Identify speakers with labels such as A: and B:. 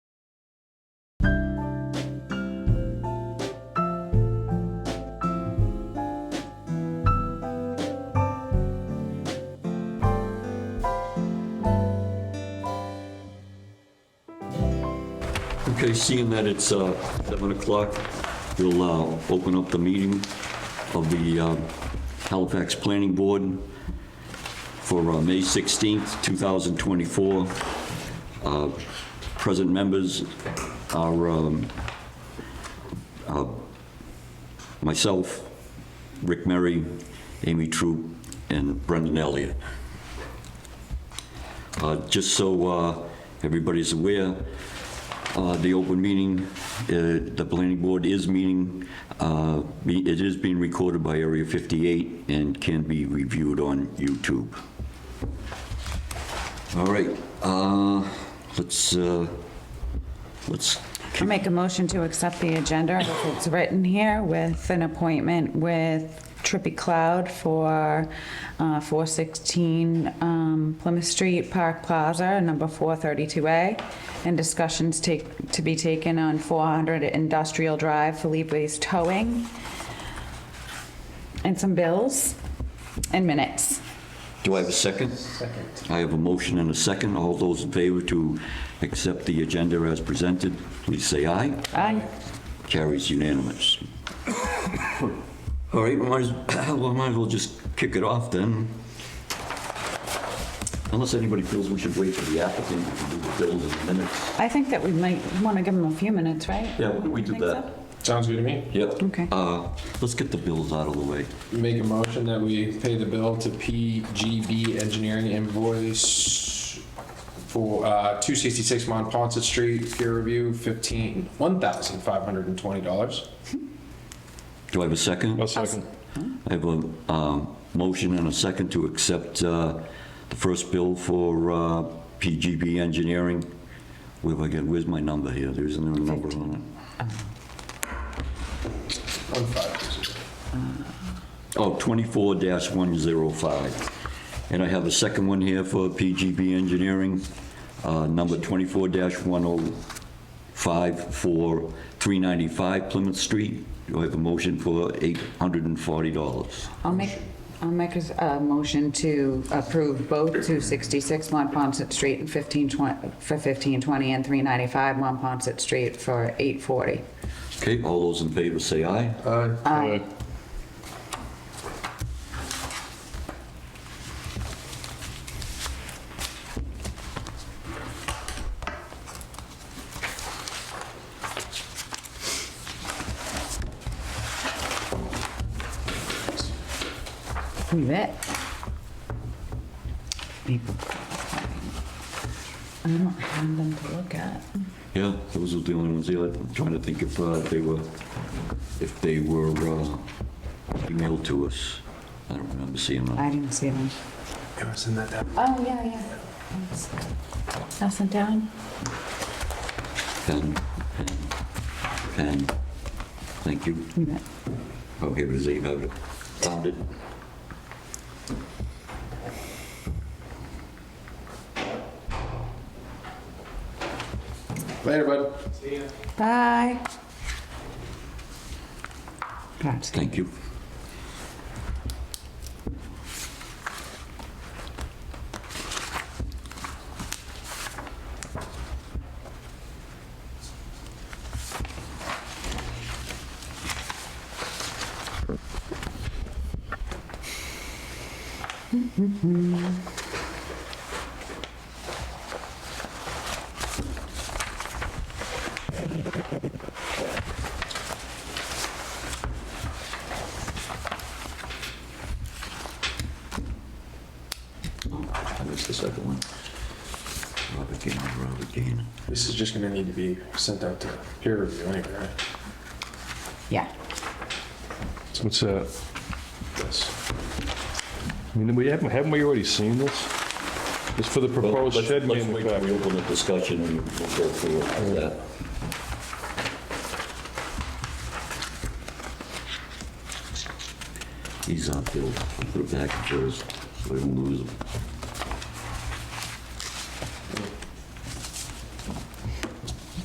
A: Okay, seeing that it's uh, 7 o'clock, we'll uh, open up the meeting of the uh, Halifax Planning Board for uh, May 16th, 2024. Uh, Present members are um, uh, myself, Rick Murray, Amy Troop, and Brendan Elliott. Uh, Just so uh, everybody's aware, uh, the open meeting, uh, the planning board is meeting, uh, be- it is being recorded by Area 58 and can be reviewed on YouTube. All right, uh, let's, uh, let's,
B: I'll make a motion to accept the agenda as it's written here with an appointment with Trippy Cloud for uh, 416 um, Plymouth Street, Park Plaza, number 432A, and discussions take, to be taken on 400 Industrial Drive, Felipe's Towing, and some bills and minutes.
A: do I have a second? Second. I have a motion and a second. All those in favor to accept the agenda as presented, please say aye.
B: Aye.
A: Carries unanimous. All right, we might as, well, might as well just kick it off then. Unless anybody feels we should wait for the applicant to do the bills in minutes.
B: I think that we might want to give them a few minutes, right?
A: Yeah, why don't we do
B: Think so?
A: that?
C: Sounds good to me.
A: Yep.
B: Okay.
A: Uh, let's get the bills out of the way.
C: Make a motion that we pay the bill to PGB Engineering invoice for uh, 266 Mont Ponce Street, peer review, 15, $1,520.
A: Do I have a second?
C: second.
A: I have a, um, motion and a second to accept, uh, the first bill for, uh, PGB Engineering. Where have I got, where's my number here? There isn't a number on it.
C: One five.
A: Oh, 24-105. And I have a second one here for PGB Engineering, uh, number 24-105 for 395 Plymouth Street. Do I have a motion for $840?
B: I'll make, I'll make a s- a motion to approve both 266 Monpont Street and 1520, for 1520 and 395 Monpont Street for 840.
A: Okay, all those in favor say aye.
B: Aye. You bet. People. I don't have them to look at.
A: Yeah, those are the only ones here. I'm trying to think if uh, they were, if they were uh, emailed to us. I don't remember seeing them.
B: I didn't see them.
C: Send that down.
B: Oh, yeah, yeah. Nothing down?
A: Pen, pen, pen. Thank you.
B: You bet.
A: Oh, here it is, you have it. Found it.
C: Later, bud.
B: Bye. That's
A: Thank you. I missed the second one. Robert Gaine, Robert Gaine.
C: This is just gonna need to be sent out to peer review anyway, right?
B: Yeah.
D: What's that?
C: This.
D: I mean, we haven't, haven't we already seen this? It's for the proposed
A: Let's-
D: shed
A: Let's wait till we
D: manufacturing.
A: open the discussion and we'll go through it after that. These aren't filled. I'll Put it back in Joe's, so we don't lose them.